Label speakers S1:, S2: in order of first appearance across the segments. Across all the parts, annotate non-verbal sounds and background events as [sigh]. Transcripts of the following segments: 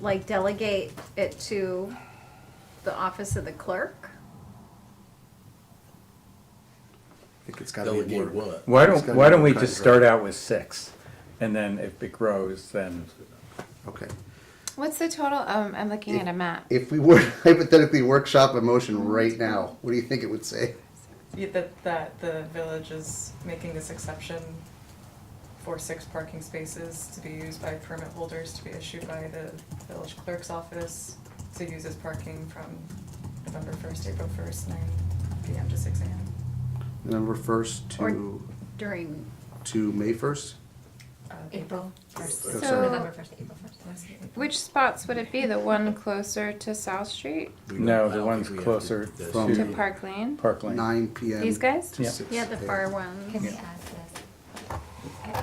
S1: like delegate it to the office of the clerk?
S2: think it's gotta be
S3: Delegate
S2: more.
S3: what?
S4: Why
S2: It's
S4: don't,
S2: gotta
S4: why
S2: be
S4: don't we
S2: more
S4: just
S2: contract.
S4: start out with six? And then if it grows, then,
S2: Okay.
S5: What's the total? Um, I'm looking at a map.
S2: If we were [laughs] to hypothetically workshop a motion right now, what do you think it would say?
S6: Yeah, that, that the village is making this exception for six parking spaces to be used by permit holders to be issued by the village clerk's office to use as parking from November first, April first, nine PM to six AM.
S2: November first to,
S1: During,
S2: to May first?
S6: Uh,
S7: April first.
S2: So-
S7: November first, April first.
S6: last year, April.
S5: Which spots would it be? The one closer to South Street
S3: We don't-
S4: no,
S3: I
S4: the
S3: don't
S4: one's
S3: think we have
S4: closer
S3: to-
S2: From-
S5: to
S4: to
S7: Mm.
S5: Park Lane?
S4: Park Lane.
S2: Nine P M.
S5: These guys?
S4: Yeah.
S1: yeah, the far ones.
S7: Can we add this? Can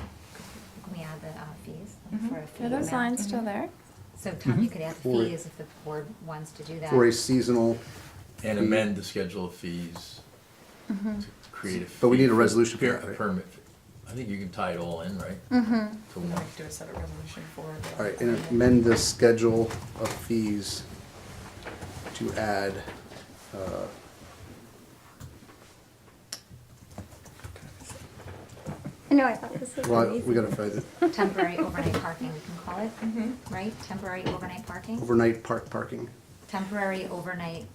S7: we add the uh, fees
S6: Mhm.
S7: for a fee
S5: Are Mm-hmm. those
S7: amount?
S5: lines still there?
S7: So Tom, you could add the
S2: For-
S7: fees if the board wants to do that.
S2: For a seasonal,
S3: And amend the schedule of fees to create a.
S2: But we
S3: fee
S2: need a
S3: for-
S2: resolution for
S3: per-
S2: that, right?
S3: A permit. fee. I think you can tie it all in, right? To
S6: And then
S3: one.
S6: we could do a separate resolution for the.
S2: all right, and amend the schedule of fees to add, uh,
S8: I know, I thought this was
S2: well, we
S8: amazing.
S2: gotta find it,
S7: Temporary overnight parking, we can call it,
S5: Mm-hmm.
S7: right? Temporary overnight parking?
S2: overnight park parking.
S7: Temporary overnight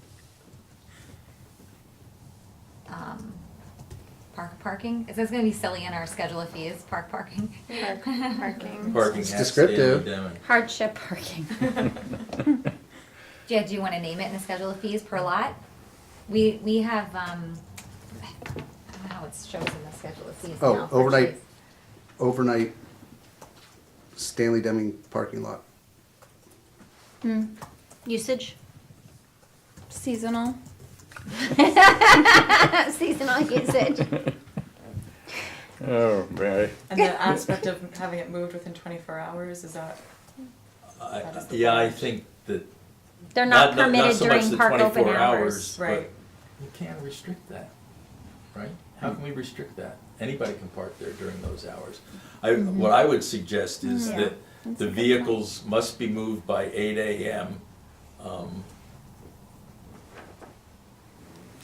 S7: um, park parking? Is this gonna be silly in our schedule of fees, park parking?
S5: Park,
S7: [laughs]
S5: parking.
S3: Parking
S2: It's
S3: has to be
S2: descriptive.
S3: demoed.
S1: Hardship parking.
S7: Yeah, do you wanna name it in the schedule of fees per lot? We, we have, um, I don't know how it shows in the schedule of fees
S2: Oh,
S7: now. for
S2: overnight.
S7: trees.
S2: Overnight Stanley Deming parking lot.
S1: Usage?
S5: Seasonal.
S8: Seasonal usage.
S4: Oh, right.
S6: And the aspect of having it moved within twenty-four hours, is that,
S3: I-
S6: That is the
S9: Yeah, I
S6: point.
S9: think that.
S8: They're not
S9: not- not
S8: permitted
S9: so much
S8: during
S9: the
S8: park open
S9: 24
S8: hours.
S9: but-
S6: right,
S3: You can't restrict that, right? How can we restrict that? Anybody can park there during those hours.
S9: I, what I would suggest is
S1: Yeah.
S9: that the vehicles must be moved by eight AM. um,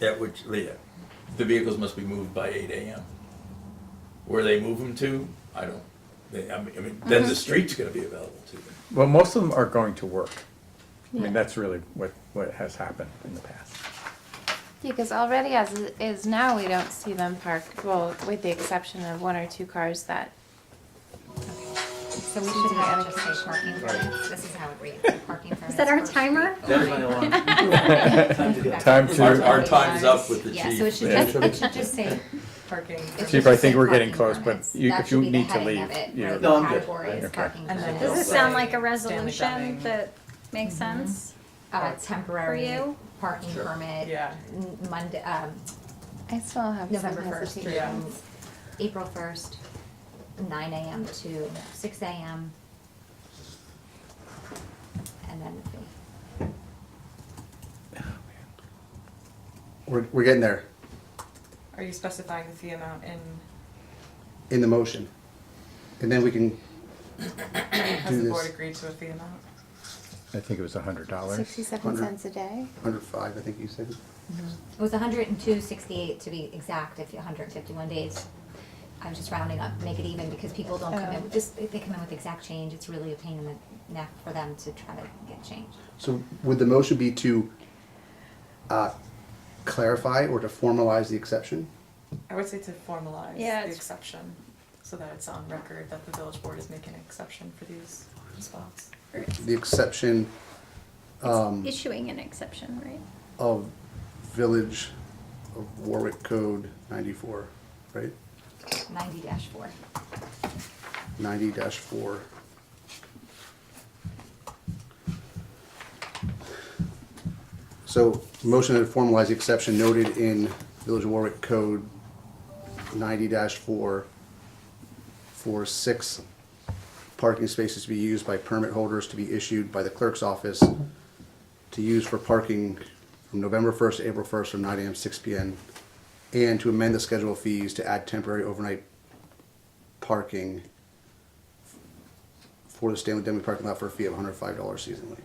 S9: At which, yeah,
S3: The vehicles must be moved by eight AM. Where they move them to, I don't, they, I mean, I mean, then the street's gonna be available to them.
S4: Well, most of them are going to work. I
S5: Yeah.
S4: mean, that's really what, what has happened in the past.
S5: Because already as it is now, we don't see them parked, well, with the exception of one or two cars that,
S7: So we should have just say parking permits, this is how it reads, parking permits.
S8: Is that our
S7: for-
S8: timer?
S9: that's my
S7: [laughs]
S9: alarm.
S4: Time
S9: Our,
S4: to,
S9: our time's up with the chief.
S7: Yeah, so it should just, it should just say.
S6: parking.
S7: it
S4: Chief,
S7: should
S4: I
S7: just
S4: think
S7: say
S4: we're getting
S7: parking
S4: close, but
S7: permits.
S4: you-
S7: That
S4: if
S7: should
S4: you
S7: be the
S4: need to
S7: heading of
S4: leave,
S7: it,
S4: you're-
S7: right?
S9: No, I'm good.
S7: Categories,
S4: Okay.
S7: parking
S6: And then-
S1: Does it
S7: permits.
S1: sound like a
S6: Stanley Deming.
S1: resolution that makes
S5: Mm-hmm.
S1: sense?
S7: Uh,
S1: For
S7: temporary
S1: you?
S7: parking
S9: Sure.
S7: permit.
S6: Yeah.
S7: n- Monday, um,
S5: I still have some
S7: November first,
S5: hesitation.
S6: Yeah.
S7: April first, nine AM to six AM. And then the fee.
S2: We're, we're getting there
S6: Are you specifying the fee amount in,
S2: in the motion. And then we can,
S6: has the
S2: this.
S6: board agreed to a fee amount?
S4: I think it was a hundred dollars.
S5: Sixty-seven cents a day?
S2: under five, I think you said.
S7: It was hundred and two sixty-eight to be exact, if hundred and fifty-one days. I was just rounding up, make it even, because people don't come in,
S5: Oh.
S7: with just, if they come in with exact change, it's really a pain in the neck for them to try to get change.
S2: So would the motion be to uh, clarify or to formalize the exception?
S6: I would say to formalize
S1: Yeah,
S6: the
S1: it's-
S6: exception, so that it's on record that the village board is making an exception for these spots.
S2: The exception um,
S1: Issuing an exception, right?
S2: of Village of Warwick Code 94, right?
S7: Ninety dash four.
S2: 90-4. So motion to formalize the exception noted in Village of Warwick Code 90-4 for six parking spaces to be used by permit holders to be issued by the clerk's office to use for parking from November 1st to April 1st from 9 AM to 6 PM, and to amend the schedule of fees to add temporary overnight parking for the Stanley Deming parking lot for a fee of $105 seasonally.